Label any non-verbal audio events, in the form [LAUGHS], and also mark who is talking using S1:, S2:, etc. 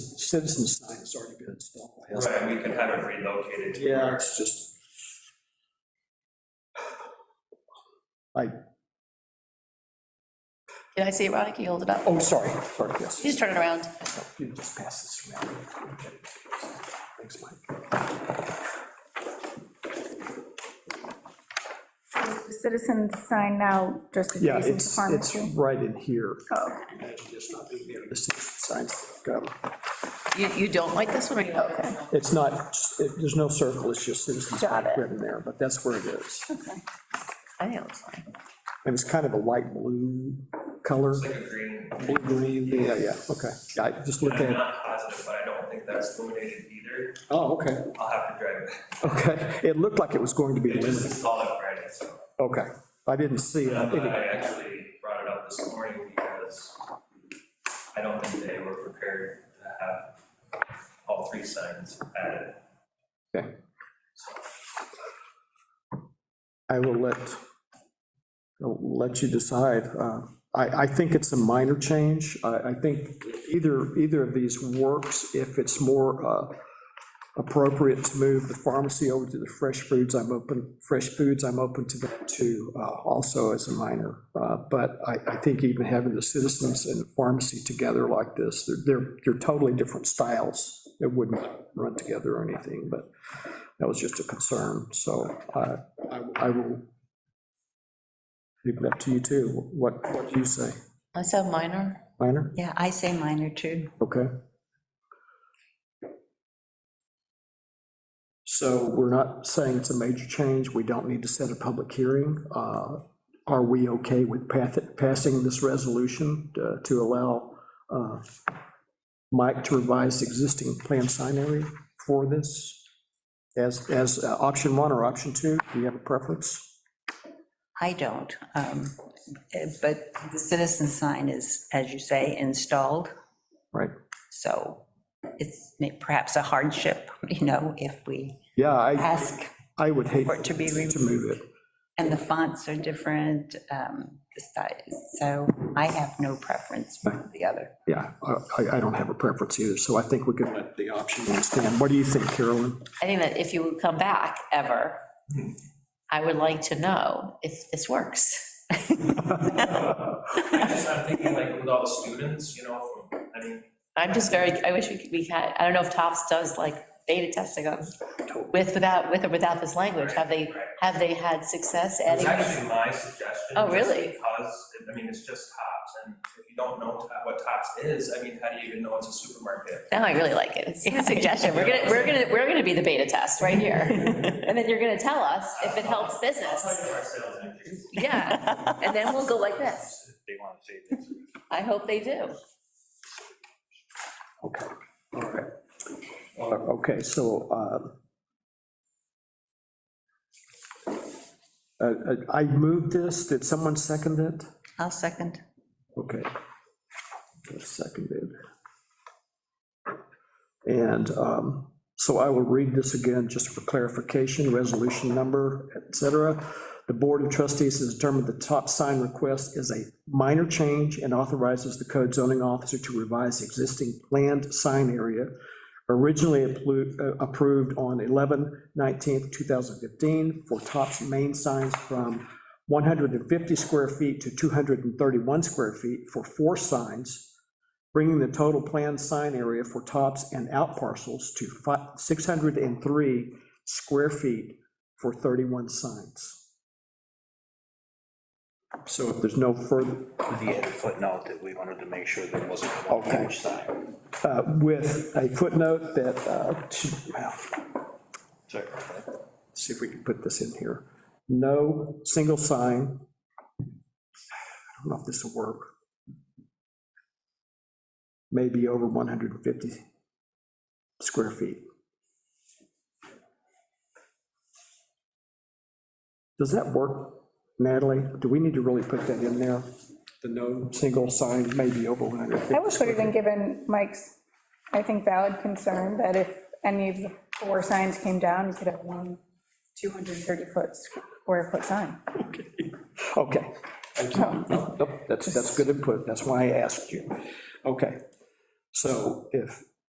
S1: citizen sign has already been installed.
S2: Right, we can have it relocated to
S1: Yeah, it's just.
S3: Did I see it, Ronnie? Can you hold it up?
S1: Oh, sorry, sorry, yes.
S3: Just turn it around.
S1: You can just pass this around. Thanks, Mike.
S4: Is the Citizen sign now just
S1: Yeah,
S4: adjacent to
S1: it's, it's
S4: pharmacy?
S1: right in here.
S4: Oh, okay.
S1: And It's not in there, the citizen signs. um,
S3: You, you don't like this one or you like this one?
S1: It's not, it- there's no circle, it's just citizen sign
S4: Got it.
S1: written there, but that's where it is.
S3: I think it looks fine.
S1: And it's kind of a light blue color,
S2: like a green.
S1: blue green, yeah, yeah, okay. Yeah, I just looked
S2: I'm
S1: at it.
S2: not positive, but I don't think that's illuminated either.
S1: Oh, okay,
S2: I'll have to drive it.
S1: okay. It looked like it was going to be
S2: They just
S1: illuminated.
S2: installed it Friday, so.
S1: Okay, I didn't see it.
S2: But
S1: Any-
S2: I actually brought it up this morning because I don't think they were prepared to have all three signs added.
S1: Okay. I will let, I'll let you decide. Uh, I, I think it's a minor change. I, I think either, either of these works if it's more uh, appropriate to move the pharmacy over to the fresh foods. I'm open, fresh foods, I'm open to that too, uh, also as a minor. Uh, But I, I think even having the citizens and the pharmacy together like this, they're- they're, they're totally different styles. They wouldn't run together or anything, but that was just a concern, so I, I- I will leave it up to you too. What, what do you say?
S3: I said minor.
S1: Minor?
S5: Yeah, I say minor too.
S1: Okay. So we're not saying it's a major change, we don't need to set a public hearing. Uh, Are we okay with path- passing this resolution uh, to allow uh, Mike to revise existing plan sign area for this? As, as uh, option one or option two, do you have a preference?
S5: I don't. um, eh, But the citizen sign is, as you say, installed,
S1: Right?
S5: so it's may- perhaps a hardship, [LAUGHS] you know, if we
S1: Yeah, I,
S5: ask,
S1: I would hate
S5: For it to be
S1: to move it.
S5: and the fonts are different, um, the size. So I have no preference for the other.
S1: Yeah, I- I, I don't have a preference either, so I think we could let the option one stand. What do you think, Carolyn?
S3: I think that if you would come back ever, I would like to know if this works.
S2: I just, I'm thinking like with all the students, you know, from, I mean,
S3: I'm just very, I wish we could, we had, I don't know if Tufts does like beta testing on, with, without, with or without this language. Have they, have they had success
S2: It's
S3: adding this?
S2: actually my suggestion.
S3: Oh,
S2: just
S3: really?
S2: Because, I mean, it's just Tops, and if you don't know Top- what Tops is, I mean, how do you even know it's a supermarket?
S3: Now I really like it. It's a suggestion. We're gonna, we're gonna, we're gonna be the beta test right [LAUGHS] here. And then you're gonna tell us if it helps
S2: I'll tell
S3: business.
S2: you our sales increase.
S3: Yeah, and then we'll go like this.
S2: They want to save this.
S3: [LAUGHS] I hope they do.
S1: Okay, all right. Uh, Okay, so. um, uh, uh, uh, I moved this, did someone second it?
S5: I'll second.
S1: Okay. Seconded. And um, so I will read this again, just for clarification, resolution number, et cetera. The Board of Trustees has determined the top sign request is a minor change and authorizes the code zoning officer to revise existing planned sign area originally appro- uh, approved on 11, 19th, 2015 for tops main signs from 150 square feet to 231 square feet for four signs, bringing the total planned sign area for tops and out parcels to fi- 603 square feet for 31 signs. So if there's no further,
S6: the added footnote that we wanted to make sure there wasn't one
S1: Okay.
S6: huge sign.
S1: uh, with a footnote that, uh, should- well,
S6: Sorry.
S1: see if we can put this in here. No single sign. I don't know if this will work. Maybe over 150 square feet. Does that work, Natalie? Do we need to really put that in there? The no single sign, maybe over 150?
S4: I wish we'd have been given Mike's, I think, valid concern that if any of the four signs came down, you could have one 230-foot square foot sign.
S1: Okay. Oh, Nope, That's, that's good input, that's why I asked you. Okay, so if